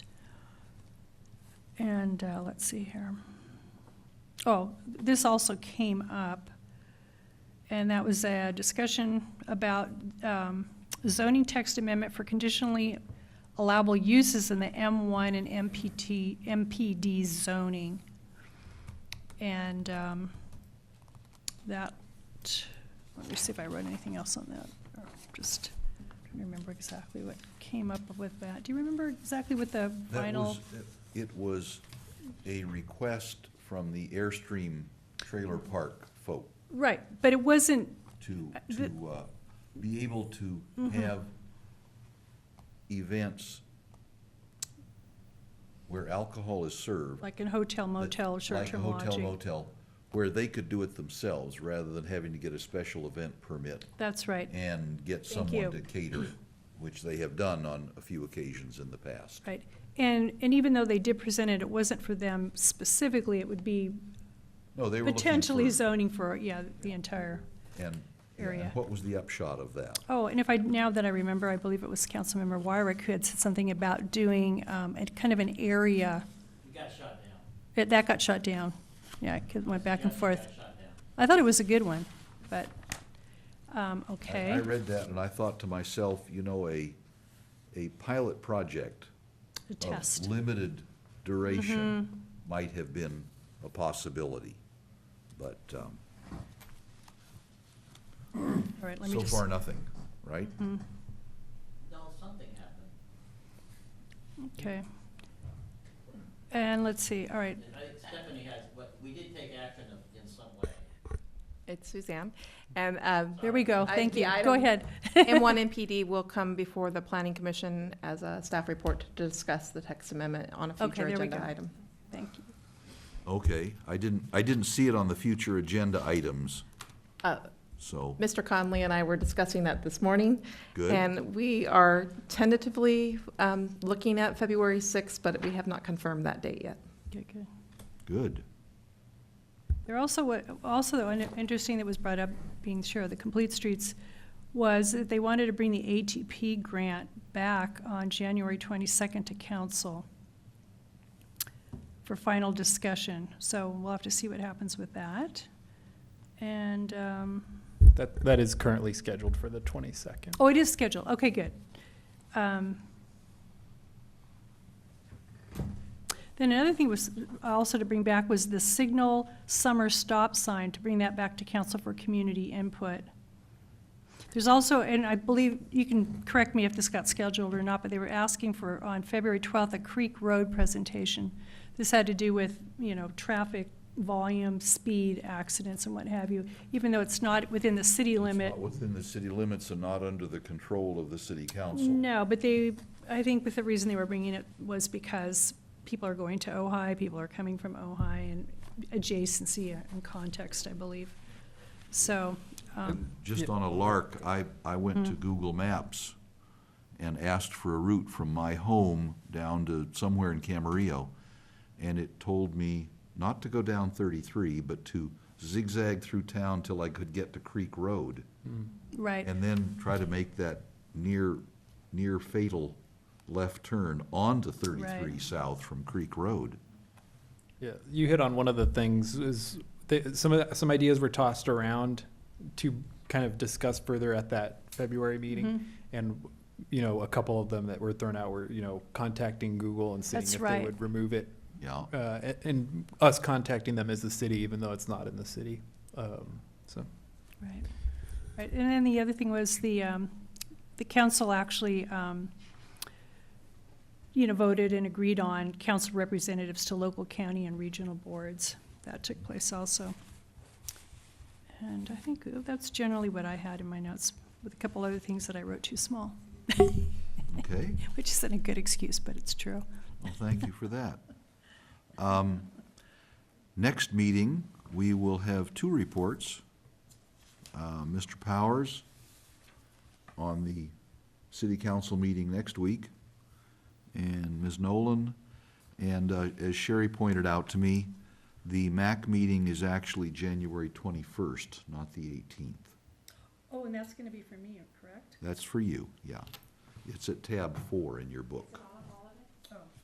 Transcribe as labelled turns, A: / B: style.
A: And uh, let's see here. Oh, this also came up, and that was a discussion about um, zoning text amendment for conditionally allowable uses in the M1 and MPT, MPD zoning. And um, that, let me see if I wrote anything else on that, or just trying to remember exactly what came up with that. Do you remember exactly what the
B: That
A: final?
B: was- It was a request from the Airstream Trailer Park folk
A: Right, but it wasn't,
B: to,
A: Uh, the- Mm-hmm.
B: to uh, be able to have events where alcohol is served.
A: like in hotel motel,
B: that-
A: short-term
B: Like a hotel
A: lodging.
B: motel, where they could do it themselves rather than having to get a special event permit
A: That's right,
B: and get
A: Thank you.
B: someone to cater, it, which they have done on a few occasions in the past.
A: right. And, and even though they did present it, it wasn't for them specifically, it would be
B: No, they were looking
A: potentially
B: for-
A: zoning for, yeah, the entire.
B: And, yeah,
A: area.
B: and what was the upshot of that?
A: Oh, and if I, now that I remember, I believe it was Councilmember Wyrick who had said something about doing, um, a kind of an area.
C: It got shut down.
A: It- That got shut down. Yeah, it went back and
C: Yeah, it
A: forth.
C: got shut down.
A: I thought it was a good one, but, um,
B: I-
A: okay.
B: I read that and I thought to myself, you know, a, a pilot project
A: A
B: of
A: test. Mm-hmm.
B: limited duration might have been a possibility. But um,
A: All right, let me
B: so
A: just. Mm-hmm. Mm.
B: far, nothing, right?
C: No, something happened.
A: Okay. And let's see, all right,
C: And I think Stephanie has, but we did take action of- in some way.
D: It's Suzanne. And, um,
A: there we go,
D: I-
A: thank
D: the
A: you, go
D: item-
A: ahead.
D: M1 MPD will come before the Planning Commission as a staff report to discuss the text amendment on a
A: Okay,
D: future
A: there we
D: agenda
A: go.
D: item.
A: Thank you.
B: Okay, I didn't, I didn't see it on the future agenda items,
D: Uh,
B: so,
D: Mr. Conley and I were discussing that this morning.
B: Good.
D: And we are tentatively um, looking at February 6th, but we have not confirmed that date yet.
A: Good, good.
B: good.
A: There also, wa- also, though, and interesting that was brought up, being sure, of the Complete Streets, was that they wanted to bring the ATP grant back on January 22nd to council for final discussion, so we'll have to see what happens with that. And, um,
E: That, that is currently scheduled for the 22nd.
A: oh, it is scheduled, okay, good. Um, Then another thing was also to bring back was the signal summer stop sign, to bring that back to council for community input. There's also, and I believe, you can correct me if this got scheduled or not, but they were asking for, on February 12th, a Creek Road presentation. This had to do with, you know, traffic volume, speed, accidents and what have you, even though it's not within the city limit.
B: It's not Within the city limits and not under the control of the city council.
A: No, but they, I think that the reason they were bringing it was because people are going to Ojai, people are coming from Ojai, and adjacency and context, I believe. So, um,
B: And just on a lark, I, I went to Google Maps and asked for a route from my home down to somewhere in Camarillo, and it told me not to go down thirty-three, but to zigzag through town till I could get to Creek Road,
A: right,
B: and then try to make that near, near fatal left turn onto thirty-three
A: Right.
B: south from Creek Road.
E: Yeah, you hit on one of the things is th some of the, some ideas were tossed around to kind of discuss further at that February
A: Mm-hmm.
E: meeting, and you know a couple of them that were thrown out were you know contacting Google and seeing
A: That's
E: if
A: right.
E: they would remove it,
B: Yeah,
E: uh, a- and us contacting them as the city, even though it's not in the city. Um, so
A: right. Right, and then the other thing was the, um, the council actually, um, you know, voted and agreed on council representatives to local, county, and regional boards. That took place also. And I think that's generally what I had in my notes, with a couple other things that I wrote too small,
B: okay.
A: which isn't a good excuse, but it's true.
B: Well, thank you for that. Um, Next meeting, we will have two reports. Uh, Mr. Powers on the city council meeting next week, and Ms. Nolan. And uh, as Sherry pointed out to me, the MAC meeting is actually January 21st, not the 18th.
A: Oh, and that's gonna be for me, correct?
B: That's for you, yeah. It's at tab four in your book.